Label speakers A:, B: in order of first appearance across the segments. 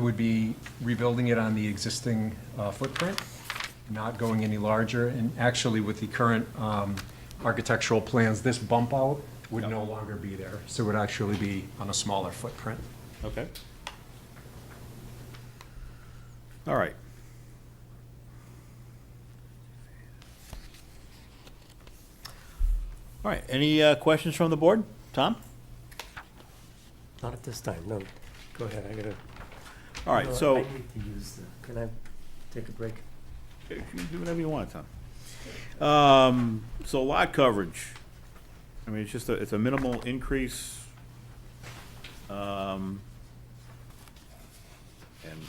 A: would be rebuilding it on the existing uh, footprint, not going any larger. And actually, with the current um, architectural plans, this bump out would no longer be there. So it would actually be on a smaller footprint.
B: Okay. All right. All right, any uh, questions from the board? Tom?
C: Not at this time, no. Go ahead, I gotta.
B: All right,
C: No,
B: so,
C: Uh, I
B: you
C: need to use the, can I take a break?
B: can do whatever you want, Tom. Um, So lot coverage, I mean, it's just, a it's a minimal increase. Um, And,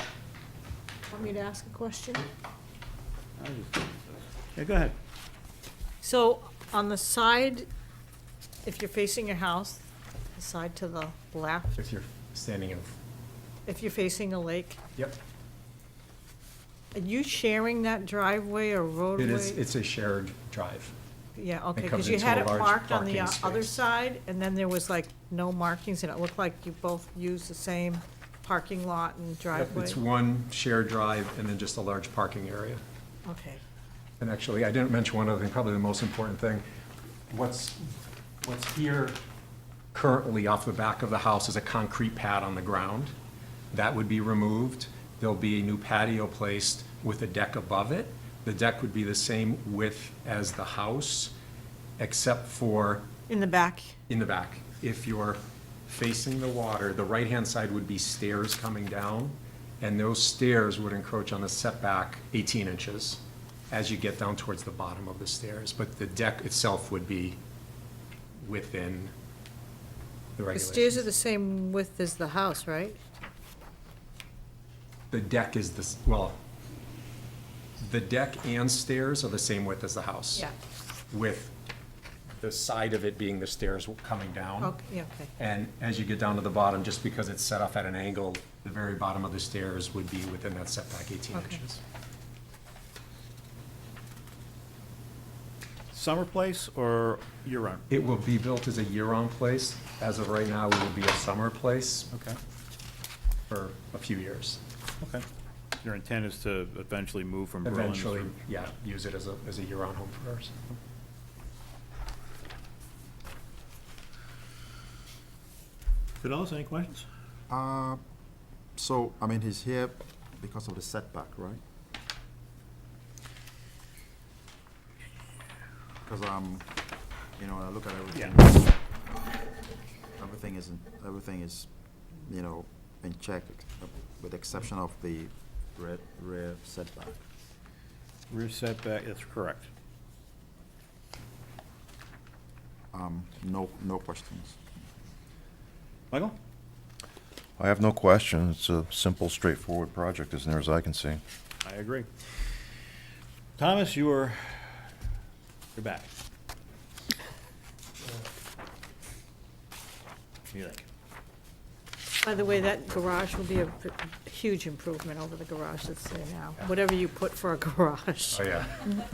B: uh,
D: Want me to ask a question?
B: I just- yeah, go ahead.
D: So on the side, if you're facing your house, the side to the left,
A: If you're standing in,
D: if you're facing a lake,
A: yep,
D: are you sharing that driveway or roadway?
A: it is, it's a shared drive.
D: Yeah, okay,
A: covers
D: because you
A: into
D: had
A: a
D: it
A: large
D: marked on the uh,
A: parking
D: other
A: space.
D: side, and then there was like no markings, and it looked like you both used the same parking lot and
A: Yep,
D: driveway.
A: It's one shared drive and then just a large parking area.
D: Okay,
A: And actually, I didn't mention one other thing, probably the most important thing. What's, what's here currently off the back of the house is a concrete pad on the ground. That would be removed. There'll be a new patio placed with a deck above it. The deck would be the same width as the house, except for
D: in the back,
A: in the back. If you're facing the water, the right-hand side would be stairs coming down, and those stairs would encroach on the setback 18 inches as you get down towards the bottom of the stairs, but the deck itself would be within the
D: the stairs
A: regulations.
D: are the same width as the house, right?
A: The deck is this, well, the deck and stairs are the same width as the house.
D: Yeah.
A: With the side of it being the stairs coming down.
D: Okay, yeah, okay.
A: And as you get down to the bottom, just because it's set off at an angle, the very bottom of the stairs would be within that setback 18
D: Okay.
A: inches.
B: Summer place or year-round?
A: It will be built as a year-round place. As of right now, it will be a summer place
B: Okay,
A: for a few years.
B: okay. Your intent is to eventually move from Berlin?
A: Eventually, yeah, use it as a, as a year-round home for us.
B: Fidelis, any questions?
E: Uh, So, I mean, he's here because of the setback, right? Because, um, you know, when I look at everything. Everything is, in- everything is, you know, in check, uh, with the exception of the rear, rear setback.
B: Rear setback, that's correct.
E: Um, no, no questions.
B: Michael?
F: I have no question. It's a simple, straightforward project as near as I can see.
B: I agree. Thomas, you are, you're back. What do you think?
D: By the way, that garage will be a p- huge improvement over the garage that's there now, whatever you put for a garage.
A: Oh, yeah.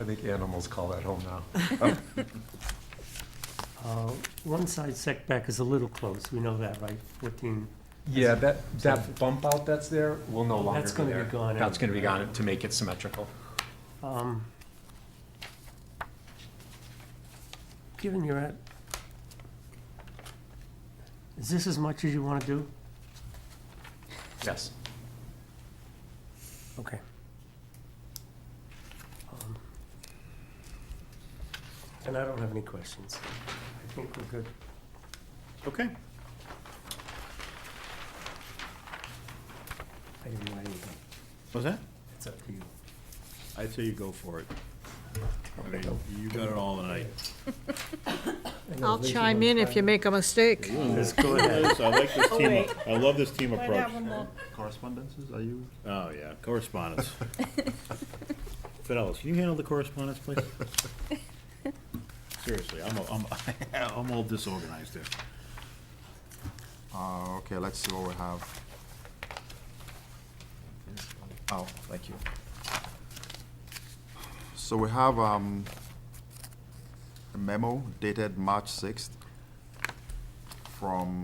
A: I think animals call that home now.
C: Uh, One side setback is a little close, we know that, right? Fourteen,
A: Yeah, that, that bump out that's there will no
C: Oh,
A: longer be there.
C: that's gonna be gone
A: That's gonna be
C: anyway.
A: gone to make it symmetrical.
C: um. Given you're at, is this as much as you wanna do?
A: Yes.
C: Okay. Um, And I don't have any questions. I think we're good.
B: Okay.
C: I didn't write anything.
B: What's that?
C: It's up to you.
B: I'd say you go for it. I mean, you got it all tonight.
C: I know
D: I'll
C: Lisa
D: chime
C: wants
D: in if
C: that.
D: you make a mistake.
C: Let's go ahead.
B: I like this team,
D: wait.
B: I love this team approach.
E: Correspondences, are you?
B: Oh, yeah, correspondence. Fidelis, can you handle the correspondence, please? Seriously, I'm, a- I'm, a- I'm all disorganized here.
E: Uh, okay, let's see what we have. Oh, thank you. So we have, um, a memo dated March sixth from